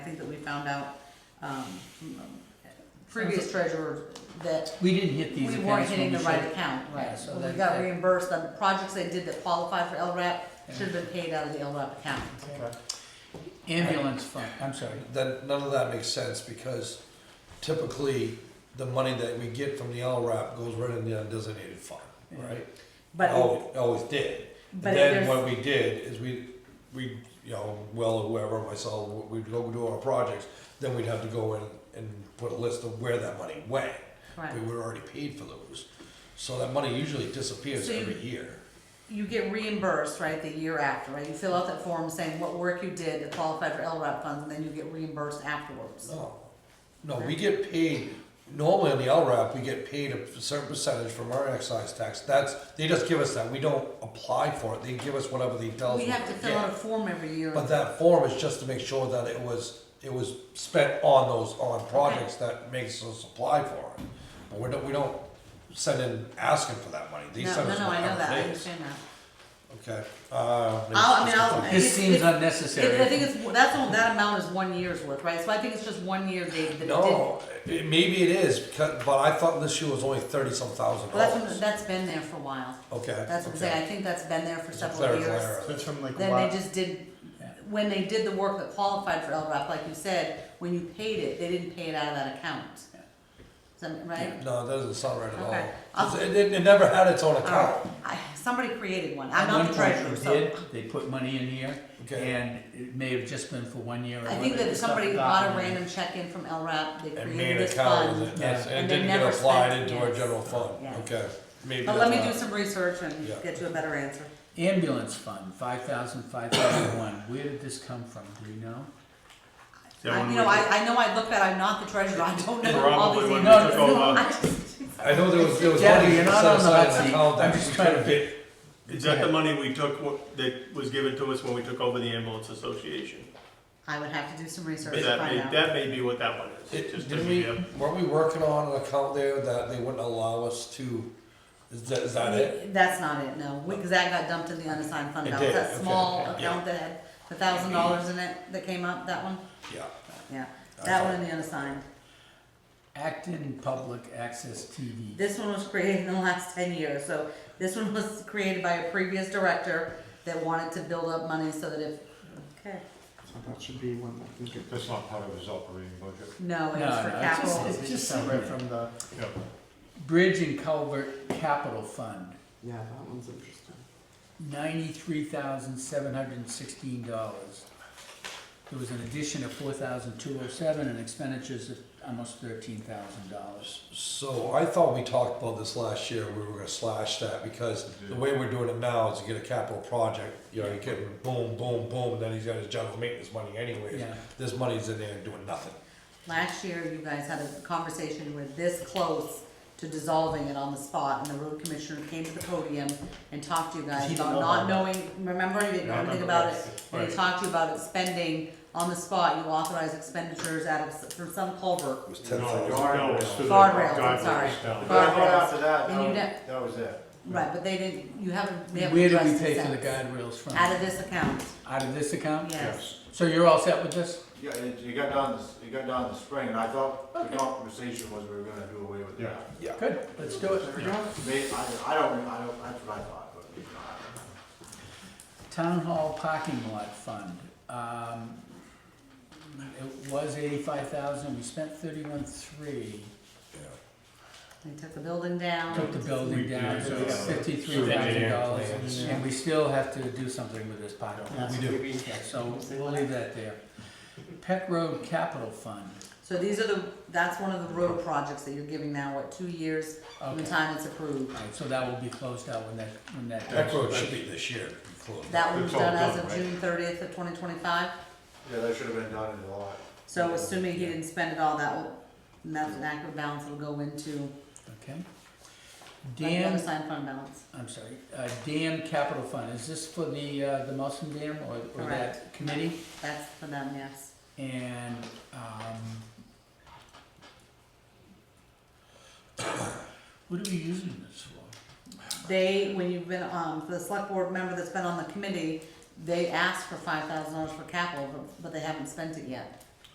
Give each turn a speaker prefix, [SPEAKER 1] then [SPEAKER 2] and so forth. [SPEAKER 1] think that we found out, um, from a
[SPEAKER 2] Previous,
[SPEAKER 1] previous treasurer that
[SPEAKER 3] We didn't hit these
[SPEAKER 1] we
[SPEAKER 3] accounts.
[SPEAKER 1] weren't hitting
[SPEAKER 3] when
[SPEAKER 1] the
[SPEAKER 3] we
[SPEAKER 1] right
[SPEAKER 3] should.
[SPEAKER 1] account.
[SPEAKER 3] Yeah, so
[SPEAKER 1] When We
[SPEAKER 3] that-
[SPEAKER 1] got
[SPEAKER 3] that-
[SPEAKER 1] reimbursed, the projects they did that qualified for LRAP should have been paid out of the LRAP account.
[SPEAKER 4] Okay.
[SPEAKER 3] Ambulance fund, I'm sorry.
[SPEAKER 4] Then none of that makes sense because typically the money that we get from the LRAP goes right in the undesignated fund, right?
[SPEAKER 1] But,
[SPEAKER 4] Always, always did. And
[SPEAKER 1] but
[SPEAKER 4] then what
[SPEAKER 1] there's,
[SPEAKER 4] we did is we, we, you know, Will, whoever, myself, we'd go do our projects, then we'd have to go in and put a list of where that money went.
[SPEAKER 1] right,
[SPEAKER 4] We were already paid for those. So that money usually disappears
[SPEAKER 1] So you-
[SPEAKER 4] every year.
[SPEAKER 1] you get reimbursed, right, the year after, right? You fill out that form saying what work you did that qualified for LRAP funds, and then you get reimbursed afterwards.
[SPEAKER 4] No, no, we get paid, normally on the LRAP, we get paid a certain percentage from our excise tax. That's, they just give us that, we don't apply for it, they give us whatever they tell us.
[SPEAKER 1] We have to
[SPEAKER 4] get.
[SPEAKER 1] fill out a form every year.
[SPEAKER 4] But that form is just to make sure that it was, it was spent on those, on projects that makes us apply for it. But we don't, we don't send in asking for that money, they
[SPEAKER 1] No,
[SPEAKER 4] send us
[SPEAKER 1] No, no, I know that,
[SPEAKER 4] whatever
[SPEAKER 1] I
[SPEAKER 4] it is.
[SPEAKER 1] understand that.
[SPEAKER 4] Okay, uh.
[SPEAKER 1] I'll- I mean, I'll-
[SPEAKER 4] it's-
[SPEAKER 3] This
[SPEAKER 1] It's-
[SPEAKER 3] seems
[SPEAKER 1] it's-
[SPEAKER 3] unnecessary.
[SPEAKER 1] It- I think it's, that's, all- that amount is one year's worth, right? So I think it's just one year, David, that it did. Well,
[SPEAKER 4] No, it- maybe it is, because, but I thought this year was only thirty some thousand
[SPEAKER 1] that's, what-
[SPEAKER 4] dollars.
[SPEAKER 1] that's been there for a while.
[SPEAKER 4] Okay.
[SPEAKER 1] That's what I'm
[SPEAKER 4] Oh. okay.
[SPEAKER 1] saying, I think that's been there for
[SPEAKER 4] It's a
[SPEAKER 1] several
[SPEAKER 4] clerical
[SPEAKER 1] years.
[SPEAKER 4] error.
[SPEAKER 5] That's from like
[SPEAKER 1] Then
[SPEAKER 5] what?
[SPEAKER 1] they just did, when they did the work that qualified for LRAP, like you said, when you paid it, they didn't pay it out of that account. Is that right?
[SPEAKER 4] No, that doesn't sound right at
[SPEAKER 1] Okay. Oh.
[SPEAKER 4] all. It, it- it never had its own
[SPEAKER 1] Alright,
[SPEAKER 4] account.
[SPEAKER 1] I, somebody created one, I'm
[SPEAKER 3] At
[SPEAKER 1] not
[SPEAKER 3] one
[SPEAKER 1] the
[SPEAKER 3] point
[SPEAKER 1] treasurer,
[SPEAKER 3] they
[SPEAKER 1] so.
[SPEAKER 3] did, They put money in here,
[SPEAKER 4] Okay.
[SPEAKER 3] and it may have just been for one year. or
[SPEAKER 1] I think
[SPEAKER 3] whatever,
[SPEAKER 1] that
[SPEAKER 3] stuff
[SPEAKER 1] somebody
[SPEAKER 3] got
[SPEAKER 1] bought a
[SPEAKER 3] in there.
[SPEAKER 1] random check in from LRAP, they
[SPEAKER 4] And made
[SPEAKER 1] created
[SPEAKER 4] an
[SPEAKER 1] this
[SPEAKER 4] account
[SPEAKER 1] fund.
[SPEAKER 4] with it, that's,
[SPEAKER 1] And
[SPEAKER 4] and
[SPEAKER 1] they
[SPEAKER 4] didn't get
[SPEAKER 1] never
[SPEAKER 4] applied
[SPEAKER 1] spent it,
[SPEAKER 4] into our
[SPEAKER 1] yes.
[SPEAKER 4] general fund,
[SPEAKER 1] Yeah.
[SPEAKER 4] okay? Maybe
[SPEAKER 1] But let me
[SPEAKER 4] that's
[SPEAKER 1] do
[SPEAKER 4] not-
[SPEAKER 1] some research and
[SPEAKER 4] Yeah.
[SPEAKER 1] get you a better answer.
[SPEAKER 3] Ambulance fund, five thousand, five thousand one. Where did this come from? Do we know?
[SPEAKER 5] That
[SPEAKER 1] I,
[SPEAKER 5] one
[SPEAKER 1] you know,
[SPEAKER 5] we-
[SPEAKER 1] I, I know I looked at, I'm not the treasurer, I don't know all
[SPEAKER 5] Probably
[SPEAKER 1] these.
[SPEAKER 5] when we
[SPEAKER 3] No,
[SPEAKER 5] took
[SPEAKER 3] no,
[SPEAKER 5] over.
[SPEAKER 1] I just-
[SPEAKER 4] I know there was, there was
[SPEAKER 3] Debbie,
[SPEAKER 4] money
[SPEAKER 3] you're
[SPEAKER 4] set
[SPEAKER 3] not on the hot
[SPEAKER 4] aside in
[SPEAKER 3] seat.
[SPEAKER 4] the
[SPEAKER 3] I'm
[SPEAKER 4] account that
[SPEAKER 3] just
[SPEAKER 4] we
[SPEAKER 3] trying to-
[SPEAKER 4] couldn't get.
[SPEAKER 5] Is that the money we took, what- that was given to us when we took over the ambulance association?
[SPEAKER 1] I would have to do some research
[SPEAKER 5] Is
[SPEAKER 1] to
[SPEAKER 5] that may,
[SPEAKER 1] find out.
[SPEAKER 5] that may be what that one is,
[SPEAKER 4] It-
[SPEAKER 5] just to
[SPEAKER 4] Didn't
[SPEAKER 5] be,
[SPEAKER 4] we,
[SPEAKER 5] a-
[SPEAKER 4] weren't we working on an account there that they wouldn't allow us to, is that, is that it?
[SPEAKER 1] That's not it, no, because that got dumped in the unassigned fund
[SPEAKER 4] It
[SPEAKER 1] balance,
[SPEAKER 4] did,
[SPEAKER 1] that
[SPEAKER 4] okay,
[SPEAKER 1] small
[SPEAKER 4] okay,
[SPEAKER 1] account that had the thousand dollars in it that came up, that one,
[SPEAKER 4] Yeah.
[SPEAKER 1] yeah.
[SPEAKER 4] I
[SPEAKER 1] That
[SPEAKER 4] thought-
[SPEAKER 1] one in the unassigned,
[SPEAKER 3] Acton Public Access TV.
[SPEAKER 1] this one was created in the last ten years, so this one was created by a previous director that wanted to build up money so that if, okay,
[SPEAKER 6] So that should be one that can get.
[SPEAKER 5] That's not part of his operating budget.
[SPEAKER 1] no,
[SPEAKER 3] No,
[SPEAKER 1] it
[SPEAKER 3] no,
[SPEAKER 1] was for
[SPEAKER 3] it's just-
[SPEAKER 1] capital.
[SPEAKER 3] It's just somewhere from the
[SPEAKER 5] Yeah.
[SPEAKER 3] Bridge and Culvert Capital Fund,
[SPEAKER 6] Yeah, that one's interesting.
[SPEAKER 3] ninety-three thousand, seven hundred and sixteen dollars. There was an addition of four thousand, two oh seven, and expenditures of almost thirteen thousand dollars.
[SPEAKER 4] So I thought we talked about this last year, we were gonna slash that, because the way we're doing it now is you get a capital project, you know, you get boom, boom, boom, then he's got his general maintenance money anyways.
[SPEAKER 3] Yeah.
[SPEAKER 4] This money's in there doing nothing.
[SPEAKER 1] Last year, you guys had a conversation, where this close to dissolving it on the spot, and the road commissioner came to the podium and talked to you guys
[SPEAKER 5] He didn't
[SPEAKER 1] about
[SPEAKER 5] know
[SPEAKER 1] not
[SPEAKER 5] about
[SPEAKER 1] knowing, remember, you didn't know
[SPEAKER 5] Yeah, I
[SPEAKER 1] anything
[SPEAKER 5] remember
[SPEAKER 1] about it?
[SPEAKER 5] that.
[SPEAKER 1] And he
[SPEAKER 5] Right.
[SPEAKER 1] talked to you about it spending on the spot, you authorized expenditures out of, from some
[SPEAKER 4] It
[SPEAKER 1] culvert.
[SPEAKER 4] was
[SPEAKER 5] No,
[SPEAKER 4] ten thousand.
[SPEAKER 5] no, it's through the
[SPEAKER 1] Guardrails, I'm
[SPEAKER 5] guardrails
[SPEAKER 1] sorry.
[SPEAKER 5] down.
[SPEAKER 1] Guard- Guardrails.
[SPEAKER 7] after that,
[SPEAKER 1] And you
[SPEAKER 7] that was, that was it.
[SPEAKER 1] Right, but they didn't, you haven't, they haven't
[SPEAKER 3] Where did we
[SPEAKER 1] addressed
[SPEAKER 3] pay
[SPEAKER 1] it
[SPEAKER 3] for the
[SPEAKER 1] since.
[SPEAKER 3] guardrails from?
[SPEAKER 1] Out of this account,
[SPEAKER 3] Out of this account?
[SPEAKER 1] yes.
[SPEAKER 3] So you're all set with this?
[SPEAKER 7] Yeah, it, you got done this, you got done in the spring, and I thought the conversation was we were gonna do away with
[SPEAKER 5] Yeah.
[SPEAKER 7] that.
[SPEAKER 3] Good, let's do it.
[SPEAKER 7] They, I, I don't, I don't, that's what I thought, but, you know, I don't know.
[SPEAKER 3] Town Hall Parking Lot Fund, um, it was eighty-five thousand, we spent thirty-one three.
[SPEAKER 1] They took the building down.
[SPEAKER 3] Took the building down,
[SPEAKER 5] We
[SPEAKER 3] so
[SPEAKER 5] did,
[SPEAKER 3] it's
[SPEAKER 5] uh,
[SPEAKER 3] fifty-three thousand
[SPEAKER 4] plans.
[SPEAKER 3] dollars, and we still have to do something with this parking lot.
[SPEAKER 6] Yeah,
[SPEAKER 4] we do.
[SPEAKER 6] maybe-
[SPEAKER 3] So we'll leave that there. Peck Road Capital Fund,
[SPEAKER 1] So these are the, that's one of the road projects that you're giving now, what, two years from the
[SPEAKER 3] Okay.
[SPEAKER 1] time it's approved?
[SPEAKER 3] Alright, so that will be closed out when that, when that.
[SPEAKER 4] That road should be this year, close.
[SPEAKER 1] That one was
[SPEAKER 5] It's all
[SPEAKER 1] done as
[SPEAKER 5] done,
[SPEAKER 1] of
[SPEAKER 5] right?
[SPEAKER 1] June thirtieth of twenty twenty-five,
[SPEAKER 7] yeah, that should have been done in the lot.
[SPEAKER 1] so assuming he didn't spend it all, that will, and that's an accurate balance, it'll go into
[SPEAKER 3] Okay.
[SPEAKER 1] like
[SPEAKER 3] Dam,
[SPEAKER 1] unassigned fund balance.
[SPEAKER 3] I'm sorry, uh, Dam Capital Fund, is this for the, uh, the Muslim Dam or, or that
[SPEAKER 1] Correct.
[SPEAKER 3] committee?
[SPEAKER 1] That's for them, yes.
[SPEAKER 3] And, um, what are we using this for?
[SPEAKER 1] They, when you've been, um, for the select board member that's been on the committee, they asked for five thousand dollars for capital, but, but they haven't spent it yet.